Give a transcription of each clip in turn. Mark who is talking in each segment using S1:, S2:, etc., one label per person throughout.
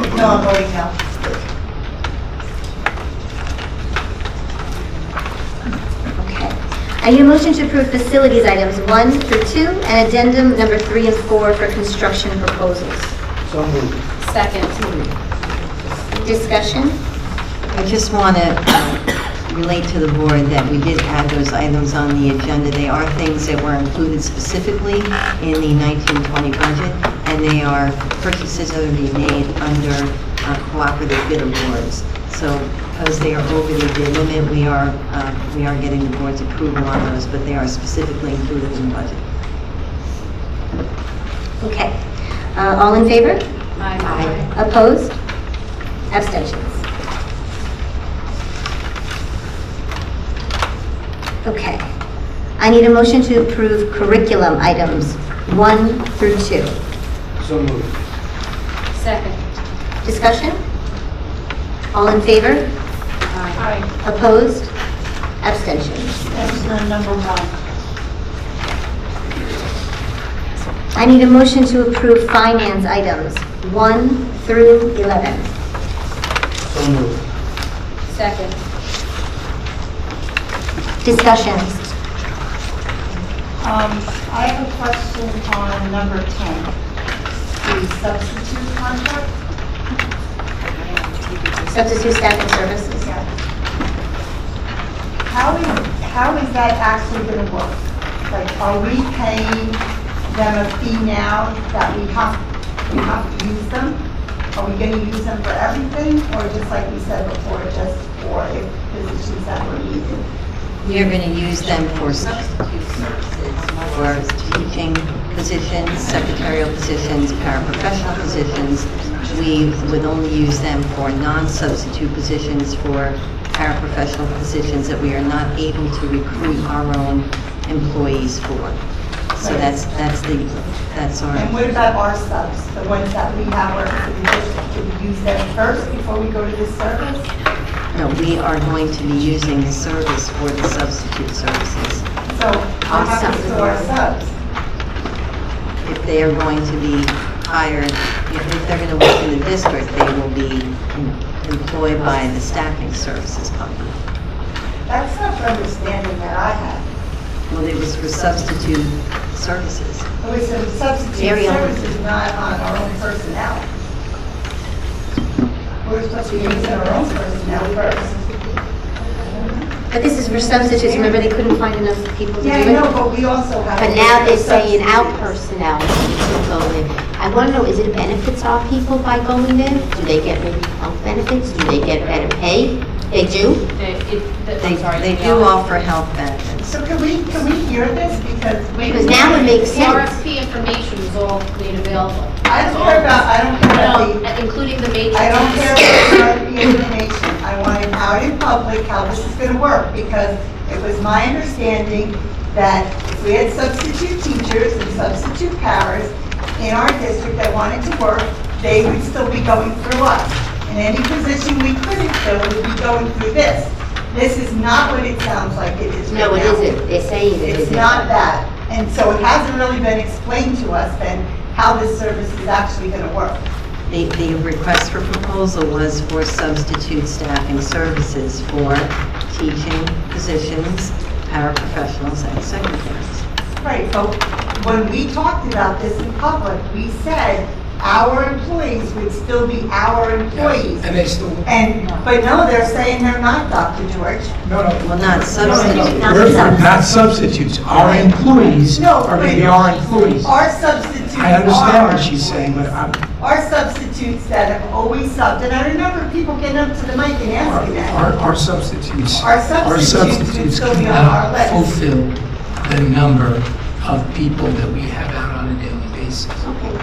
S1: still on voting now.
S2: Okay. I need a motion to approve facilities items one through two and addendum number three and four for construction proposals.
S3: So moved.
S2: Discussion?
S4: I just want to uh, relate to the board that we did add those items on the agenda. They are things that were included specifically in the 1920 budget, and they are purchases that would be made under uh, cooperative bid awards. So because they are over the bid limit, we are, uh, we are getting the board's approval on those, but they are specifically included in the budget.
S2: Okay. Uh, All in favor?
S4: Aye.
S2: Opposed? Abstentions? Okay. I need a motion to approve curriculum items one through two.
S3: So moved.
S2: Discussion? All in favor?
S1: Aye.
S2: Opposed? Abstentions?
S1: That was the number one.
S2: I need a motion to approve finance items 1 through 11.
S3: So moved.
S2: Discussions?
S1: Um, I have a question on number 10, the substitute contract.
S2: Substitute staffing services?
S1: Yeah. How is, how is that actually going to work? Like, are we paying them a fee now that we have, we have to use them? Are we going to use them for everything, or just like we said before, just for if positions that we're using?
S4: We are going to use them for substitute services, for teaching positions, secretarial positions, paraprofessional positions. We would only use them for non-substitute positions, for paraprofessional positions that we are not able to recruit our own employees for. So that's, that's the, that's our.
S1: And what about our subs, the ones that we have, or do we use them first before we go to the service?
S4: No, we are going to be using the service for the substitute services.
S1: So what happens to our subs?
S4: if they are going to be hired, if if they're going to work in the district, they will be employed by the staffing services company.
S1: That's not the understanding that I had.
S4: Well, it was for substitute services.
S1: It was a substitute
S4: Very on-
S1: services, not on our own personnel. We're supposed to be using our own personnel first.
S2: But this is for substitutes, remember they couldn't find enough people to do it?
S1: Yeah, I know, but we also have.
S5: But now they're saying our personnel should go in. I want to know, is it a benefits our people by going in? Do they get maybe health benefits? Do they get better pay? They do?
S6: They, it- the-
S4: They
S6: I'm sorry.
S4: they
S6: the
S4: do
S6: RFP.
S4: offer health benefits.
S1: So can we, can we hear this? Because we.
S5: Because now it makes
S6: The
S5: sense.
S6: RFP information is all made available.
S1: I don't care about, I don't care about the.
S6: No, Including the matrix.
S1: I don't care about the information, I want it out in public how this is gonna work, because it was my understanding that if we had substitute teachers and substitute paras in our district that wanted to work, they would still be going through us. And any position we couldn't fill would be going through this. This is not what it sounds like it is right now.
S5: No, it isn't. They're saying it
S1: It's
S5: isn't.
S1: not that, and so it hasn't really been explained to us then how this service is actually gonna work.
S4: The the request for proposal was for substitute staffing services for teaching positions, paraprofessionals, and secretaries.
S1: Right, but when we talked about this in public, we said our employees would still be our employees.
S3: And they still,
S1: And, but no, they're saying they're not, Dr. George.
S3: no, no.
S4: Well, not substitute.
S3: We're for- Not substitutes, our employees
S1: No,
S3: are going to
S1: but-
S3: be our employees.
S1: Our substitutes
S3: I understand what she's
S1: are-
S3: saying, but I'm,
S1: Our substitutes that have always subbed, and I remember people getting up to the mic and
S3: our,
S1: asking that.
S3: our- our substitutes.
S1: Our substitutes would
S3: substitutes
S1: still be on our
S3: cannot
S1: list.
S3: Fulfill the number of people that we have out on a daily basis.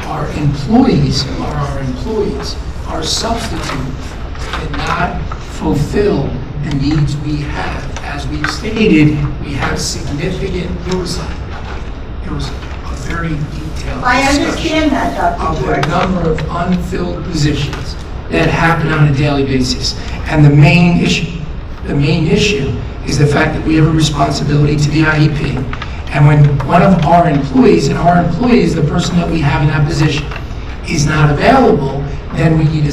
S3: Our employees are our employees. Our substitutes cannot fulfill the needs we have. As we've stated, we have significant, it was, it was a very detailed
S1: I
S3: discussion
S1: understand that,
S3: of
S1: Dr.
S3: the
S1: George.
S3: number of unfilled positions that happen on a daily basis. And the main issue, the main issue is the fact that we have a responsibility to the IEP. And when one of our employees, and our employees, the person that we have in that position, is not available, then we need a